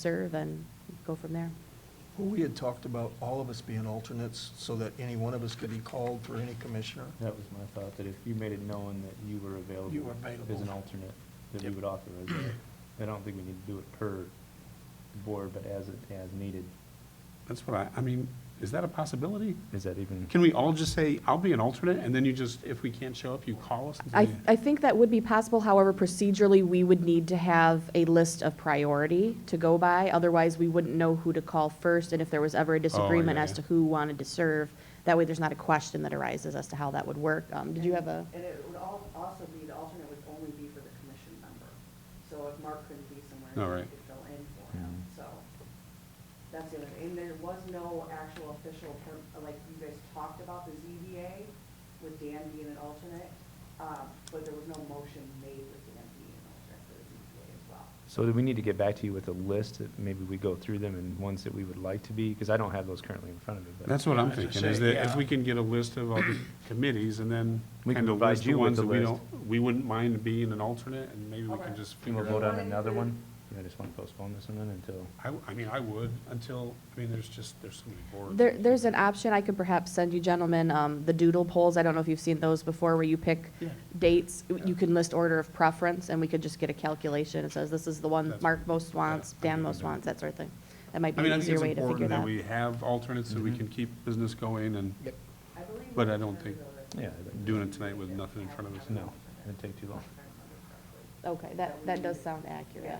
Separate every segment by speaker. Speaker 1: serve and go from there.
Speaker 2: Well, we had talked about all of us being alternates so that any one of us could be called for any commissioner.
Speaker 3: That was my thought, that if you made it known that you were available.
Speaker 2: You were available.
Speaker 3: As an alternate, that we
Speaker 2: Yep.
Speaker 3: would authorize that. I don't think we need to do it per board, but as, it- as needed.
Speaker 4: That's what I, I mean, is that a possibility?
Speaker 3: Is that even?
Speaker 4: Can we all just say, I'll be an alternate, and then you just, if we can't show up, you call us? and
Speaker 1: I,
Speaker 4: say-
Speaker 1: I think that would be possible, however, procedurally, we would need to have a list of priority to go by. Otherwise, we wouldn't know who to call first, and if there was ever a disagreement
Speaker 4: Oh, yeah,
Speaker 1: as
Speaker 4: yeah.
Speaker 1: to who wanted to serve, that way there's not a question that arises as to how that would work. Um, did you have a,
Speaker 5: And it would al- also be, the alternate would only be for the commission member. So if Mark couldn't be somewhere,
Speaker 4: All Oh, right.
Speaker 5: you could fill in for him,
Speaker 3: Mm-hmm.
Speaker 5: so. That's the other thing. And there was no actual official, per- like, you guys talked about the ZBA with Dan being an alternate, uh, but there was no motion made with Dan being an alternate for the ZBA as well.
Speaker 3: So do we need to get back to you with a list? that Maybe we go through them and ones that we would like to be, because I don't have those currently in front of me. but-
Speaker 4: That's what I'm
Speaker 2: I was gonna
Speaker 4: thinking, is
Speaker 2: say,
Speaker 4: that if
Speaker 2: yeah.
Speaker 4: we can get a list of all the committees, and then
Speaker 3: We can
Speaker 4: kind of
Speaker 3: provide
Speaker 4: list the
Speaker 3: you with
Speaker 4: ones
Speaker 3: the
Speaker 4: that we
Speaker 3: list.
Speaker 4: don't, we wouldn't mind being an alternate, and maybe we
Speaker 5: Okay.
Speaker 4: can just
Speaker 3: Can we
Speaker 4: figure
Speaker 3: vote
Speaker 4: out.
Speaker 3: on another one? I just want to postpone this one then until,
Speaker 4: I, w- I mean, I would, until, I mean, there's just, there's so many boards.
Speaker 1: there, there's an option, I could perhaps send you gentlemen, um, the doodle polls. I don't know if you've seen those before, where you pick
Speaker 4: Yeah.
Speaker 1: dates. You can list order of preference, and we could just get a calculation. It says this is the one
Speaker 4: That's-
Speaker 1: Mark most wants,
Speaker 4: yeah, I
Speaker 1: Dan
Speaker 4: think
Speaker 1: most
Speaker 4: that-
Speaker 1: wants, that sort of thing. That might
Speaker 4: I
Speaker 1: be
Speaker 4: mean, I
Speaker 1: an
Speaker 4: think
Speaker 1: easier
Speaker 4: it's
Speaker 1: way to figure
Speaker 4: important
Speaker 1: that
Speaker 4: that
Speaker 1: out.
Speaker 4: we have alternates, so
Speaker 3: Mm-hmm.
Speaker 4: we can keep business going, and
Speaker 5: I believe.
Speaker 4: But
Speaker 5: the
Speaker 4: I don't think-
Speaker 5: alternative or the-
Speaker 3: yeah, I think-
Speaker 4: doing it tonight with nothing in front of us.
Speaker 3: no, it'd take too long.
Speaker 5: If I remember correctly.
Speaker 1: Okay, that, that does sound accurate.
Speaker 5: Yeah,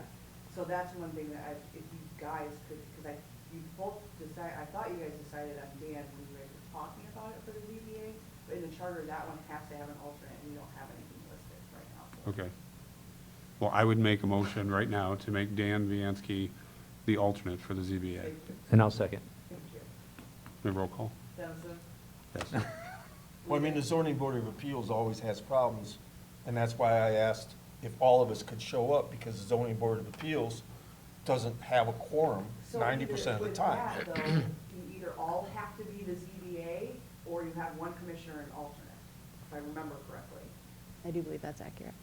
Speaker 5: so that's one thing that I, if you guys could, because I, you both decide, I thought you guys decided on Dan when you guys were talking about it for the ZBA, but in the charter, that one has to have an alternate, and we don't have anything listed right now.
Speaker 4: Okay. Well, I would make a motion right now to make Dan Viancy the alternate for the ZBA.
Speaker 5: Thank you,
Speaker 3: And I'll second.
Speaker 5: thank you.
Speaker 4: May I roll call?
Speaker 5: Dennison?
Speaker 2: Well, I mean, the zoning board of appeals always has problems, and that's why I asked if all of us could show up, because the zoning board of appeals doesn't have a quorum
Speaker 5: So
Speaker 2: ninety
Speaker 5: either
Speaker 2: percent of the
Speaker 5: with
Speaker 2: time.
Speaker 5: that, though, You either all have to be the ZBA, or you have one commissioner and alternate, if I remember correctly.
Speaker 1: I do believe that's accurate.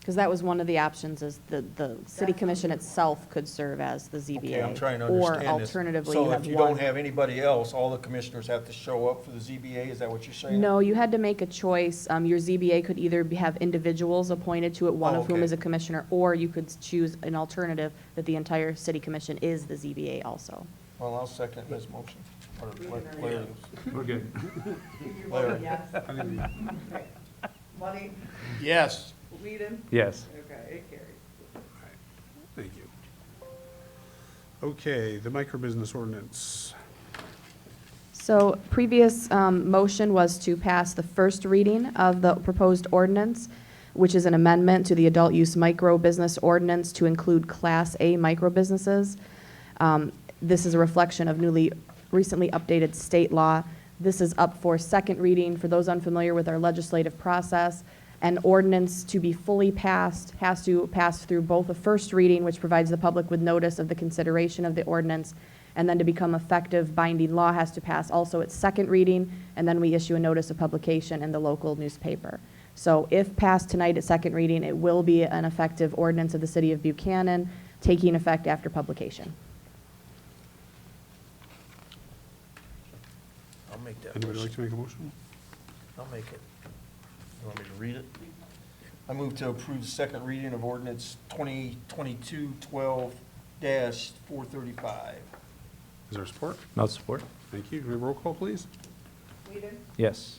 Speaker 1: Because that was one of the options, is the, the city
Speaker 5: That's
Speaker 1: commission
Speaker 5: what-
Speaker 1: itself could serve as the ZBA.
Speaker 2: Okay, I'm trying to understand this.
Speaker 1: Or alternatively, you
Speaker 2: So
Speaker 1: have
Speaker 2: if you don't
Speaker 1: one.
Speaker 2: have anybody else, all the commissioners have to show up for the ZBA, is that what you're saying?
Speaker 1: No, you had to make a choice. Um, your ZBA could either be- have individuals appointed to it, one
Speaker 2: Oh,
Speaker 1: of whom
Speaker 2: okay.
Speaker 1: is a commissioner, or you could choose an alternative that the entire city commission is the ZBA also.
Speaker 2: Well, I'll second his motion. Or let Larry-
Speaker 4: We're good.
Speaker 5: You're
Speaker 2: Larry.
Speaker 5: voting yes?
Speaker 4: I think we-
Speaker 5: Okay. Money?
Speaker 2: Yes.
Speaker 5: Whedon?
Speaker 3: Yes.
Speaker 5: Okay, it carries.
Speaker 4: Thank you. Okay, the microbusiness ordinance.
Speaker 1: So previous um, motion was to pass the first reading of the proposed ordinance, which is an amendment to the adult use micro business ordinance to include Class A micro businesses. Um, This is a reflection of newly, recently updated state law. This is up for second reading. For those unfamiliar with our legislative process, an ordinance to be fully passed has to pass through both a first reading, which provides the public with notice of the consideration of the ordinance, and then to become effective binding law has to pass also its second reading, and then we issue a notice of publication in the local newspaper. So if passed tonight at second reading, it will be an effective ordinance of the city of Buchanan, taking effect after publication.
Speaker 2: I'll make that
Speaker 4: Anybody
Speaker 2: motion.
Speaker 4: like to make a motion?
Speaker 2: I'll make it. You want me to read it? I move to approve the second reading of ordinance 2022-12-435.
Speaker 4: Is there support?
Speaker 3: I'll support.
Speaker 4: Thank you. Can we roll call, please?
Speaker 5: Whedon?
Speaker 3: Yes.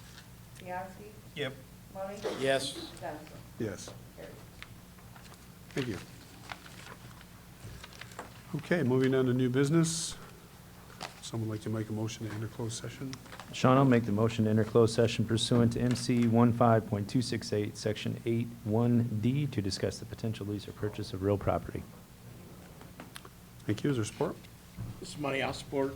Speaker 5: Bianski?
Speaker 2: Yep.
Speaker 5: Money?
Speaker 2: Yes.
Speaker 5: Dennison?
Speaker 4: Yes.
Speaker 5: Carries.
Speaker 4: Thank you. Okay, moving on to new business. Someone like to make a motion to enter closed session?
Speaker 3: Sean, I'll make the motion to enter closed session pursuant to MC 15.268, Section 81D, to discuss the potential lease or purchase of real property.
Speaker 4: Thank you. Is there support?
Speaker 6: This is money I'll support.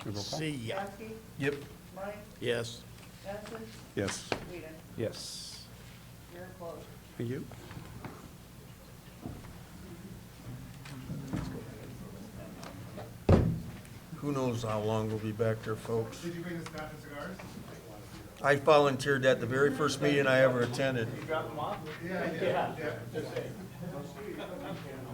Speaker 4: Can we roll call?
Speaker 6: See ya.
Speaker 5: Bianski?
Speaker 2: Yep.
Speaker 5: Money?
Speaker 6: Yes.
Speaker 5: Dennison?
Speaker 4: Yes.
Speaker 5: Whedon?
Speaker 3: Yes.
Speaker 5: You're closed.
Speaker 4: Thank you.
Speaker 2: Who knows how long we'll be back there, folks? Did you bring the staff and cigars? I volunteered at the very first meeting I ever attended.